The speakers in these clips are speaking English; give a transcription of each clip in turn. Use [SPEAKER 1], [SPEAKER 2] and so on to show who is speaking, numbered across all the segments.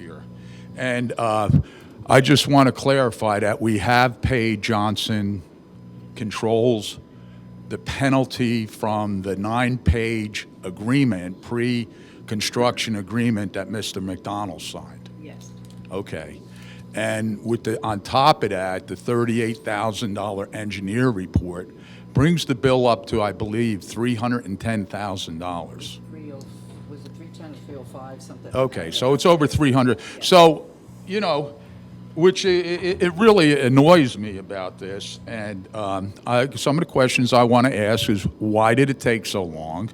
[SPEAKER 1] here. And uh, I just want to clarify that we have paid Johnson Controls the penalty from the nine-page agreement, pre-construction agreement that Mr. McDonald signed.
[SPEAKER 2] Yes.
[SPEAKER 1] Okay. And with the, on top of that, the $38,000 engineer report brings the bill up to, I believe, $310,000.
[SPEAKER 2] Three oh, was it three ten or three oh five, something?
[SPEAKER 1] Okay, so it's over 300. So, you know, which i- i- it really annoys me about this. And um, I- some of the questions I want to ask is, why did it take so long?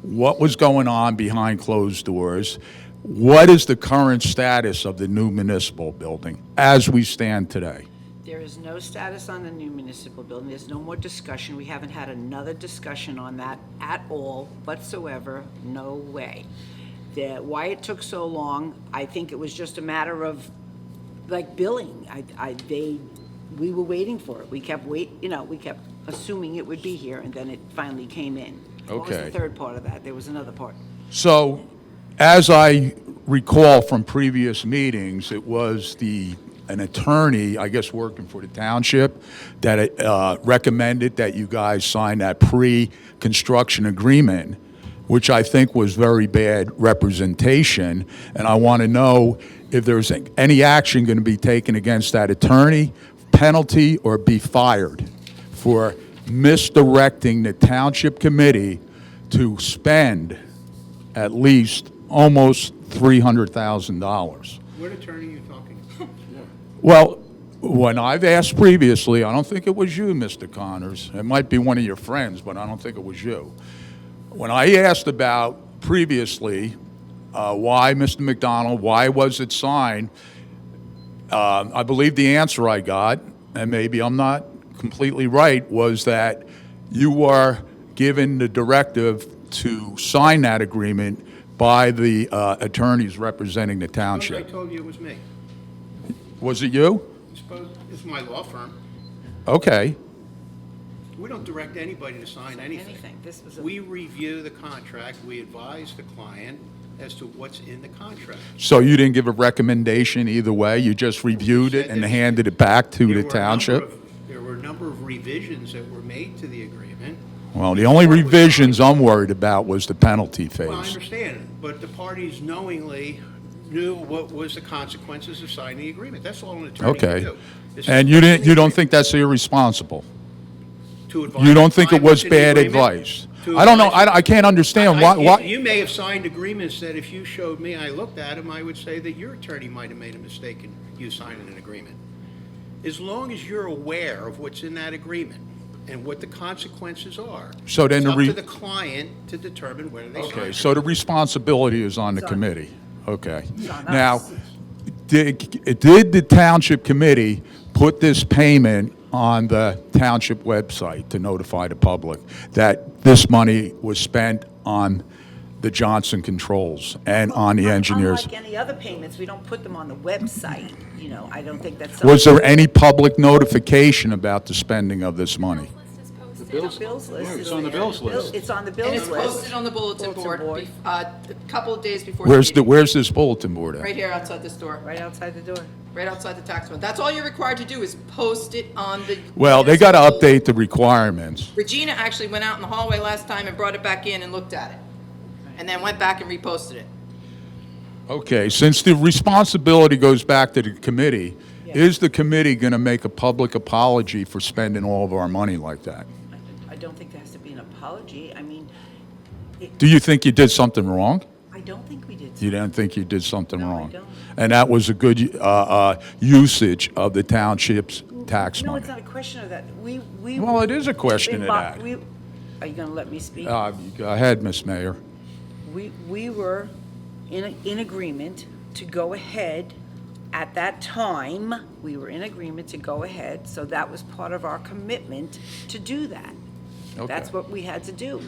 [SPEAKER 1] What was going on behind closed doors? What is the current status of the new municipal building as we stand today?
[SPEAKER 2] There is no status on the new municipal building. There's no more discussion. We haven't had another discussion on that at all whatsoever. No way. The, why it took so long, I think it was just a matter of, like, billing. I, I, they, we were waiting for it. We kept wait, you know, we kept assuming it would be here, and then it finally came in. What was the
[SPEAKER 1] Okay.
[SPEAKER 2] third part of that? There was another part.
[SPEAKER 1] So, as I recall from previous meetings, it was the, an attorney, I guess working for the township, that uh, recommended that you guys sign that pre-construction agreement, which I think was very bad representation. And I want to know if there's any action going to be taken against that attorney, penalty, or be fired for misdirecting the township committee to spend at least almost $300,000.
[SPEAKER 3] What attorney are you talking to?
[SPEAKER 1] Well, when I've asked previously, I don't think it was you, Mr. Connors. It might be one of your friends, but I don't think it was you. When I asked about previously, uh, why Mr. McDonald, why was it signed? Um, I believe the answer I got, and maybe I'm not completely right, was that you were given the directive to sign that agreement by the uh, attorneys representing the
[SPEAKER 3] I
[SPEAKER 1] township.
[SPEAKER 3] told you it was me.
[SPEAKER 1] Was it you?
[SPEAKER 3] It's supposed- It's my law firm.
[SPEAKER 1] Okay.
[SPEAKER 3] We don't direct anybody to sign anything.
[SPEAKER 2] Anything. This was a-
[SPEAKER 3] We review the contract, we advise the client as to what's in the contract.
[SPEAKER 1] So you didn't give a recommendation either way? You just reviewed it and handed it back to
[SPEAKER 3] There were a
[SPEAKER 1] the
[SPEAKER 3] number
[SPEAKER 1] township?
[SPEAKER 3] of- There were a number of revisions that were made to the agreement.
[SPEAKER 1] Well, the only revisions I'm worried about was the penalty
[SPEAKER 3] Well, I
[SPEAKER 1] phase.
[SPEAKER 3] understand, but the parties knowingly knew what was the consequences of signing the agreement. That's all an attorney can
[SPEAKER 1] Okay.
[SPEAKER 3] do. is
[SPEAKER 1] And you didn't, you don't think that's irresponsible?
[SPEAKER 3] to advise
[SPEAKER 1] You don't
[SPEAKER 3] the
[SPEAKER 1] think it
[SPEAKER 3] client
[SPEAKER 1] was
[SPEAKER 3] what's in the
[SPEAKER 1] bad
[SPEAKER 3] agreement,
[SPEAKER 1] advice?
[SPEAKER 3] to
[SPEAKER 1] I don't know,
[SPEAKER 3] advise the
[SPEAKER 1] I, I can't understand
[SPEAKER 3] I-
[SPEAKER 1] why,
[SPEAKER 3] you-
[SPEAKER 1] why,
[SPEAKER 3] You may have signed agreements that if you showed me, I looked at them, I would say that your attorney might have made a mistake in you signing an agreement. As long as you're aware of what's in that agreement and what the consequences are.
[SPEAKER 1] So then
[SPEAKER 3] it's
[SPEAKER 1] the
[SPEAKER 3] up
[SPEAKER 1] re-
[SPEAKER 3] to the client to determine whether they sign.
[SPEAKER 1] okay,
[SPEAKER 3] it.
[SPEAKER 1] so the responsibility is on the
[SPEAKER 2] It's on-
[SPEAKER 1] committee. Okay.
[SPEAKER 2] on
[SPEAKER 1] Now,
[SPEAKER 2] us.
[SPEAKER 1] did, did the township committee put this payment on the township website to notify the public that this money was spent on the Johnson Controls and on the engineers?
[SPEAKER 2] Unlike any other payments, we don't put them on the website, you know, I don't think that's.
[SPEAKER 1] Was there any public notification about the spending of this money?
[SPEAKER 4] The
[SPEAKER 2] The bills list.
[SPEAKER 5] it's on the bills
[SPEAKER 2] Bill-
[SPEAKER 5] list.
[SPEAKER 2] It's on the
[SPEAKER 4] And it's
[SPEAKER 2] bills
[SPEAKER 4] posted
[SPEAKER 2] list.
[SPEAKER 4] on the bulletin
[SPEAKER 2] Bulletin
[SPEAKER 4] board,
[SPEAKER 2] board.
[SPEAKER 4] bef- uh, a couple of days before.
[SPEAKER 1] Where's the,
[SPEAKER 4] meeting.
[SPEAKER 1] where's this bulletin board
[SPEAKER 4] Right
[SPEAKER 1] at?
[SPEAKER 4] here outside this door,
[SPEAKER 2] Right outside the door.
[SPEAKER 4] right outside the tax one. That's all you're required to do is post it on the.
[SPEAKER 1] Well, they got to update the requirements.
[SPEAKER 4] Regina actually went out in the hallway last time and brought it back in and looked at it. And then went back and reposted it.
[SPEAKER 1] Okay, since the responsibility goes back to the committee, is the committee going to make a public apology for spending all of our money like that?
[SPEAKER 2] I don't think there has to be an apology. I mean,
[SPEAKER 1] Do you think you did something wrong?
[SPEAKER 2] I don't think we did.
[SPEAKER 1] You didn't think you did something
[SPEAKER 2] No, I
[SPEAKER 1] wrong?
[SPEAKER 2] don't.
[SPEAKER 1] And that was a good uh, uh, usage of the township's tax
[SPEAKER 2] No,
[SPEAKER 1] money?
[SPEAKER 2] it's not a question of that. We, we.
[SPEAKER 1] Well, it is a question of
[SPEAKER 2] we mo-
[SPEAKER 1] that.
[SPEAKER 2] we- Are you going to let me speak?
[SPEAKER 1] Uh, Go ahead, Miss Mayor.
[SPEAKER 2] We, we were in, in agreement to go ahead. At that time, we were in agreement to go ahead, so that was part of our commitment to do that. That's
[SPEAKER 1] Okay.
[SPEAKER 2] what we had to do.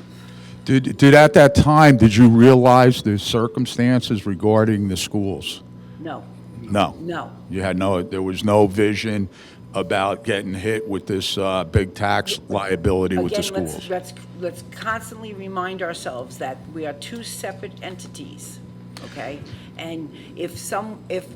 [SPEAKER 1] Did, did, at that time, did you realize the circumstances regarding the schools?
[SPEAKER 2] No,
[SPEAKER 1] No.
[SPEAKER 2] no.
[SPEAKER 1] You had no, there was no vision about getting hit with this uh, big tax liability with the
[SPEAKER 2] Again, let's-
[SPEAKER 1] schools?
[SPEAKER 2] let's, let's constantly remind ourselves that we are two separate entities, okay? And if some, if